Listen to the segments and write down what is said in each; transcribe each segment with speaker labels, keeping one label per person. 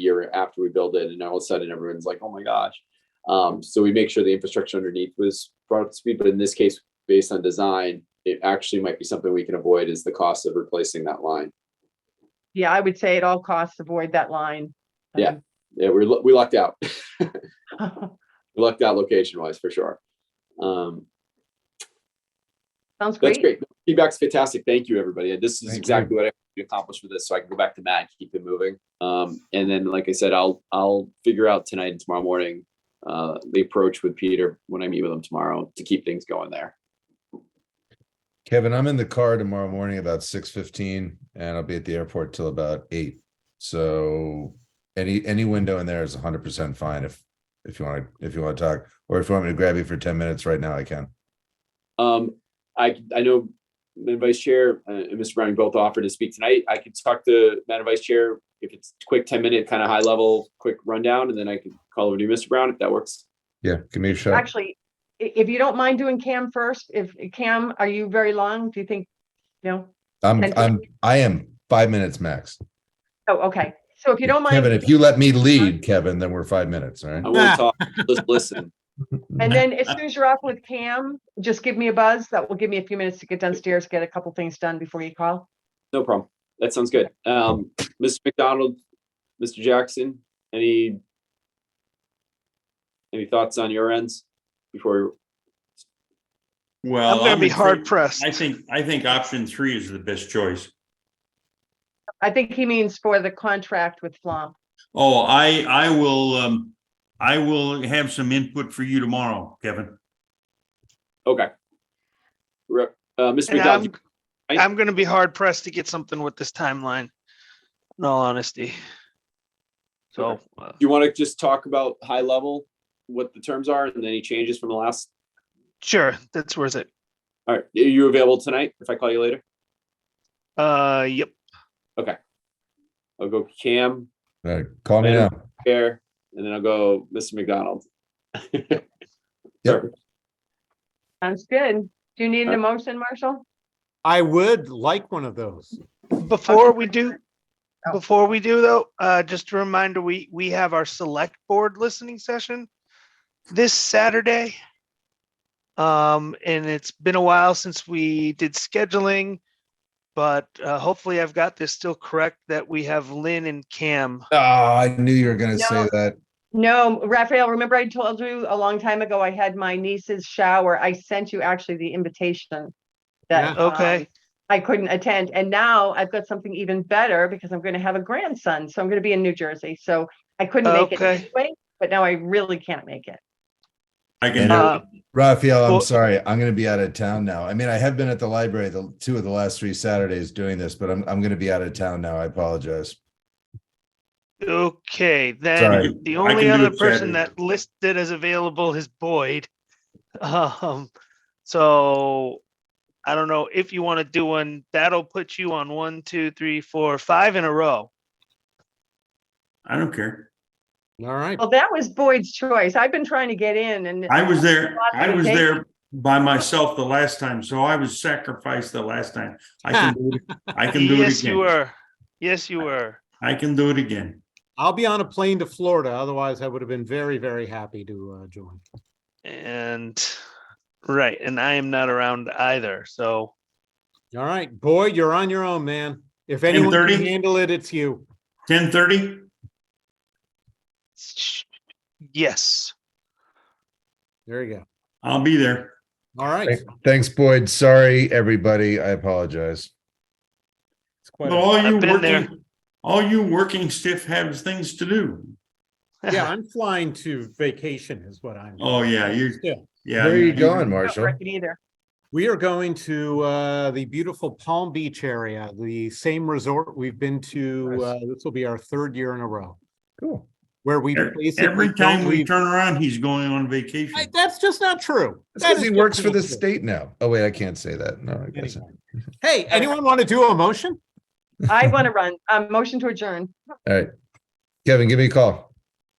Speaker 1: year after we build it, and all of a sudden everyone's like, "Oh my gosh!" Um, so we make sure the infrastructure underneath was brought up to speed. But in this case, based on design, it actually might be something we can avoid is the cost of replacing that line.
Speaker 2: Yeah, I would say at all costs, avoid that line.
Speaker 1: Yeah. Yeah, we lu- we lucked out. we
Speaker 2: Um,
Speaker 1: lucked out location wise for sure. Um,
Speaker 2: Sounds
Speaker 1: that's
Speaker 2: great.
Speaker 1: great. Feedback's fantastic. Thank you, everybody. This is
Speaker 3: Thank you.
Speaker 1: exactly what I wanted to accomplish with this, so I can go back to Matt, and keep it moving. Um, and then, like I said, I'll I'll figure out tonight and tomorrow morning uh, the approach with Peter when I meet with him tomorrow to keep things going there.
Speaker 3: Kevin, I'm in the car tomorrow morning about six fifteen and I'll be at the airport till about eight. So any, any window in there is hundred percent fine if, if you want to, if you want to talk, or if you want me to grab you for ten minutes right now, I can.
Speaker 1: Um, I, I know the Vice Chair uh, and Mr. Browning both offered to speak tonight. I could talk to Madam Vice Chair if it's quick, ten minute, kind of high level, quick rundown, and then I could call over to you, Mr. Brown, if that works.
Speaker 3: Yeah, give me a shot.
Speaker 2: Actually, i- if you don't mind doing Cam first, if Cam, are you very long? Do you think? No?
Speaker 3: I'm,
Speaker 2: and-
Speaker 3: I'm, I am five minutes max.
Speaker 2: Oh, okay. So if you don't
Speaker 3: Kevin,
Speaker 2: mind,
Speaker 3: if you let me lead, Kevin, then we're five minutes, all right?
Speaker 1: I
Speaker 2: Oh.
Speaker 1: won't talk, just listen.
Speaker 2: and then as soon as you're off with Cam, just give me a buzz. That will give me a few minutes to get downstairs, get a couple things done before you call.
Speaker 1: No problem. That sounds good. Um, Mr. McDonald, Mr. Jackson, any any thoughts on your ends before?
Speaker 4: Well,
Speaker 5: I'm gonna be
Speaker 4: would
Speaker 5: hard
Speaker 4: say-
Speaker 5: pressed.
Speaker 4: I think, I think option three is the best choice.
Speaker 2: I think he means for the contract with Flom.
Speaker 4: Oh, I, I will, um, I will have some input for you tomorrow, Kevin.
Speaker 1: Okay. Rep- Uh, Mr.
Speaker 5: And
Speaker 1: McDonald,
Speaker 5: I'm,
Speaker 1: I-
Speaker 5: I'm gonna be hard pressed to get something with this timeline, in all honesty. So, uh,
Speaker 1: Do you want to just talk about high level, what the terms are and any changes from the last?
Speaker 5: sure, that's worth it.
Speaker 1: All right, are you available tonight if I call you later?
Speaker 5: Uh, yep,
Speaker 1: I'll go Cam,
Speaker 3: All right, call me now.
Speaker 1: Bear, and then I'll go Mr. McDonald. Perfect.
Speaker 2: Sounds good. Do you need
Speaker 1: Uh,
Speaker 2: an emotion, Marshall?
Speaker 6: I would like one of those.
Speaker 5: before we do,
Speaker 2: Oh.
Speaker 5: before we do though, uh, just a reminder, we, we have our select board listening session this Saturday. Um, and it's been a while since we did scheduling, but, uh, hopefully I've got this still correct that we have Lynn and Cam.
Speaker 3: Ah, I knew you were gonna say
Speaker 2: No.
Speaker 3: that.
Speaker 2: No, Raphael, remember I told you a long time ago, I had my niece's shower. I sent you actually the invitation. that,
Speaker 5: Yeah. Okay.
Speaker 2: um, I couldn't attend. And now I've got something even better because I'm going to have a grandson. So I'm going to be in New Jersey. So I couldn't make it
Speaker 5: Okay.
Speaker 2: anyway, but now I really can't make it. Um,
Speaker 4: I can,
Speaker 5: Uh,
Speaker 3: Raphael, I'm
Speaker 5: Well-
Speaker 3: sorry. I'm going to be out of town now. I mean, I have been at the library the two of the last three Saturdays doing this, but I'm, I'm going to be out of town now. I apologize.
Speaker 5: Okay,
Speaker 3: Sorry.
Speaker 5: then the
Speaker 4: I can
Speaker 5: only
Speaker 4: do
Speaker 5: other
Speaker 4: it Saturday.
Speaker 5: person that listed as available is Boyd. Um, so I don't know if you want to do one, that'll put you on one, two, three, four, five in a row.
Speaker 4: I don't care.
Speaker 6: All right.
Speaker 2: Well, that was Boyd's choice. I've been trying to get in and
Speaker 4: I was there, I was there by myself the last time, so I was sacrificed the last time. I can, do it- I can do it
Speaker 5: Yes, you
Speaker 4: again.
Speaker 5: were. Yes, you were.
Speaker 4: I can do it again.
Speaker 6: I'll be on a plane to Florida. Otherwise, I would have been very, very happy to uh, join.
Speaker 5: And, right, and I am not around either, so.
Speaker 6: All right, boy, you're on your own, man. If anyone
Speaker 4: 10:30?
Speaker 6: can handle it, it's you.
Speaker 4: Ten thirty?
Speaker 5: sh- Yes,
Speaker 6: There you go.
Speaker 4: I'll be there.
Speaker 6: All right.
Speaker 3: Thank- Thanks, Boyd. Sorry, everybody. I apologize.
Speaker 4: But all you
Speaker 5: I've been there.
Speaker 4: working, all you working stiff has things to do.
Speaker 6: Yeah, I'm flying to vacation is what I'm.
Speaker 4: Oh, yeah, you,
Speaker 6: Yeah.
Speaker 4: yeah.
Speaker 3: Where are you
Speaker 4: you-
Speaker 3: going,
Speaker 2: not
Speaker 3: Marshall?
Speaker 2: working either.
Speaker 6: We are going to uh, the beautiful Palm Beach area, the same resort we've been to.
Speaker 3: Nice.
Speaker 6: Uh, this will be our third year in a row
Speaker 3: Cool.
Speaker 6: where we
Speaker 4: Every-
Speaker 6: basically
Speaker 4: Every
Speaker 6: don't
Speaker 4: time we
Speaker 6: leave-
Speaker 4: turn around, he's going on vacation.
Speaker 6: I- That's just not true.
Speaker 3: That's
Speaker 6: That
Speaker 3: 'cause
Speaker 6: is
Speaker 3: he
Speaker 6: just
Speaker 3: works for
Speaker 6: not
Speaker 3: the
Speaker 6: true.
Speaker 3: state now. Oh, wait, I can't say that. No, I guess.
Speaker 6: Anyway. Hey, anyone want to do a motion?
Speaker 2: I want to run. Um, motion to adjourn.
Speaker 3: All right. Kevin, give me a call.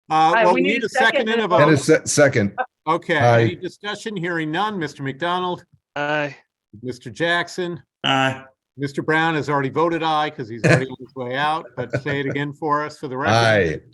Speaker 6: Uh,
Speaker 2: Aye,
Speaker 6: well, we need a second and a
Speaker 3: That
Speaker 6: vote.
Speaker 3: is se- second.
Speaker 6: Okay,
Speaker 3: Aye.
Speaker 6: any discussion? Hearing none. Mr. McDonald,
Speaker 5: I,
Speaker 6: Mr. Jackson,
Speaker 4: Uh,
Speaker 6: Mr. Brown has already voted aye because he's already on his way out, but say it again for us for the record.
Speaker 3: Aye.